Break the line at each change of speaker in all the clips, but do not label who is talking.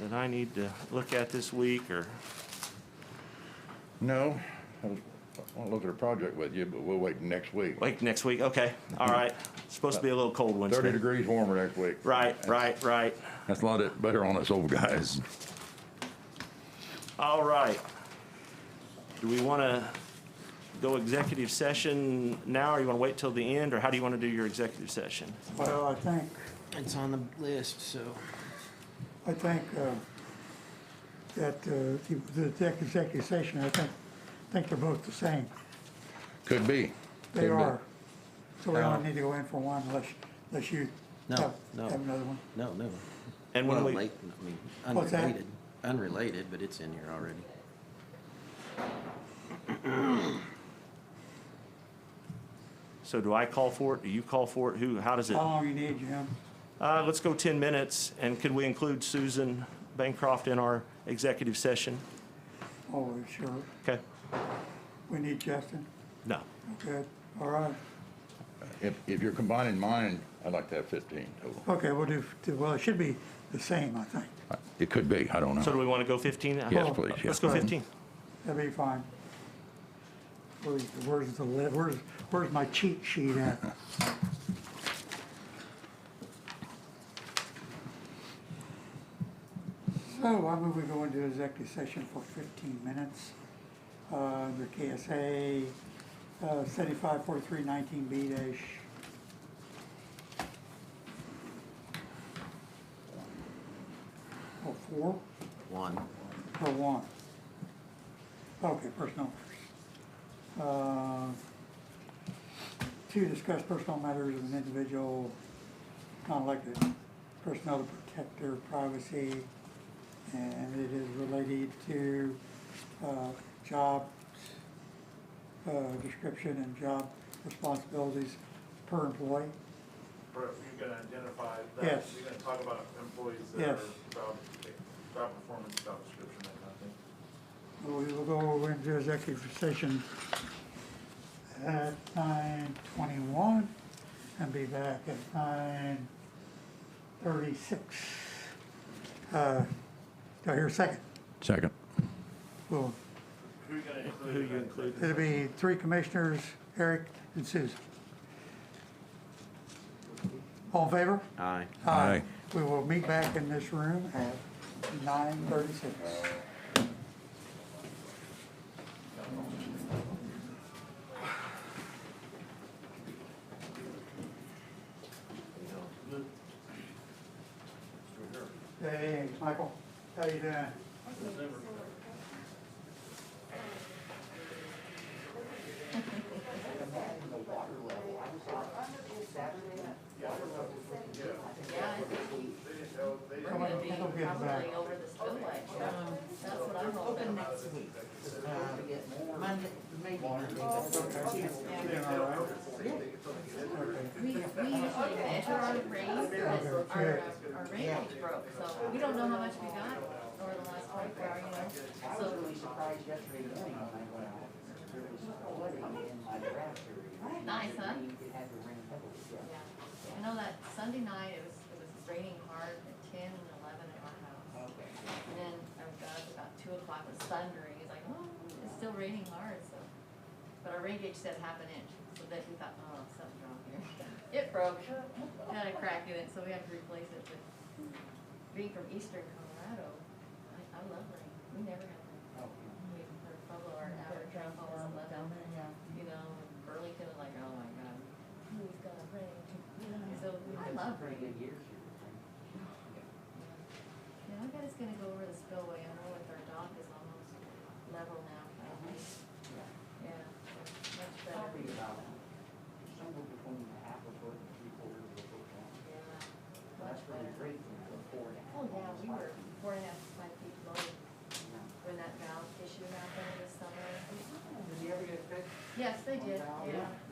that I need to look at this week, or,
No, I want to look at a project with you, but we'll wait next week.
like, next week? Okay, all right. It's Supposed to be a little cold Wednesday.
Thirty degrees warmer next week.
Right, right, right.
That's a lot of- better on us old guys.
All right. Do we want to go executive session now, or you want to wait till the end, or how do you want to do your executive session?
Well, I think,
It's on the list, so.
I think uh, that uh, the- the exec- executive session, I think, I think they're both the same.
Could be.
They
Could be.
are. So we
No.
don't need to go in for one unless, unless you
No,
have,
no.
have another one.
No, never.
And
Well,
when
late, I
we,
mean,
What's that?
unrelated, unrelated, but it's in here already.
so do I call for it? Do you call for it? Who, how does it?
How long you need, Jim?
Uh, let's go 10 minutes, and could we include Susan Bancroft in our executive session?
Oh, sure.
Okay,
We need Justin.
no.
Okay, all right.
If, if you're combining mine, I'd like to have fifteen total.
Okay, we'll do, well, it should be the same, I think.
It could be, I don't
So do
know.
we want to go 15?
Yes, please, yes.
Let's go 15.
That'd be fine. Where's, where's the, li- where's, where's my cheat sheet at? So I move we go into executive session for fifteen minutes, uh, under KSA, uh, seventy-five forty-three nineteen B dash. Oh, four,
One.
or one? Okay, personnel. Uh, To discuss personal matters of an individual, non-elected personnel to protect their privacy, and it is related to uh, job uh, description and job responsibilities per employee.
Brett, you're gonna identify that,
Yes.
you're gonna talk about employees that are
Yes.
job, job performance, job description, that kind of thing.
We will go over into executive session at nine twenty-one and be back at nine thirty-six. Uh, do I hear a second?
Second.
Well,
Who you gonna include?
Who
in
you
that?
include?
it'll be three commissioners, Eric and Susan. All in favor?
Aye.
Aye.
We will meet back in this room at nine thirty-six. Hey, Michael, how you doing? Come on,
Be
go
probably
get him back.
over the spillway. That's what I'm hoping next week.
Monday, maybe Monday, but
Doing all right?
We, we usually measure our rain, because our, uh, our rain gauge broke, so we don't know how much we got over the last twenty-four hours, you know?
I was really
So,
surprised yesterday morning when I went out. There was flooding in my grass area.
Nice, huh?
It had to rain heavily, yeah.
yeah, I know that Sunday night, it was, it was raining hard at ten and eleven at our house. And then I got up about two o'clock, it was thundering, it's like, oh, it's still raining hard, so. But our rain gauge said half an inch, so then we thought, oh, something's wrong here. It broke, had a crack in it, so we had to replace it, but being from eastern Colorado, I, I love rain, we never have rain. We, for Pueblo, our average rainfall is eleven, you know, and Burlington is like, oh my god, who's gonna rain? So, I love rain.
Pretty good years here, I think.
Yeah, I bet it's gonna go over the spillway, I know with our dock is almost level now, I
Uh-huh.
think. Yeah, much better,
Probably about somewhere between a half a foot and three quarters of a foot long.
yeah, much
That's
better.
really great for four and a half.
Oh, yeah, we were
miles.
four and a half, to five feet low
Yeah.
when that valve issue happened this summer.
Did you ever get fixed?
Yes, they did,
Oh, Wow.
yeah.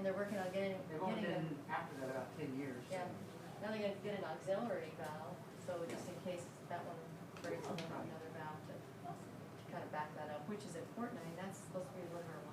And they're working on getting,
They've only
getting a,
been after that about ten years. so-
yeah, now they're gonna get an auxiliary valve, so just in case that one breaks, they'll have another valve to, to kind of back that up, which is important, I mean, that's supposed to be one of our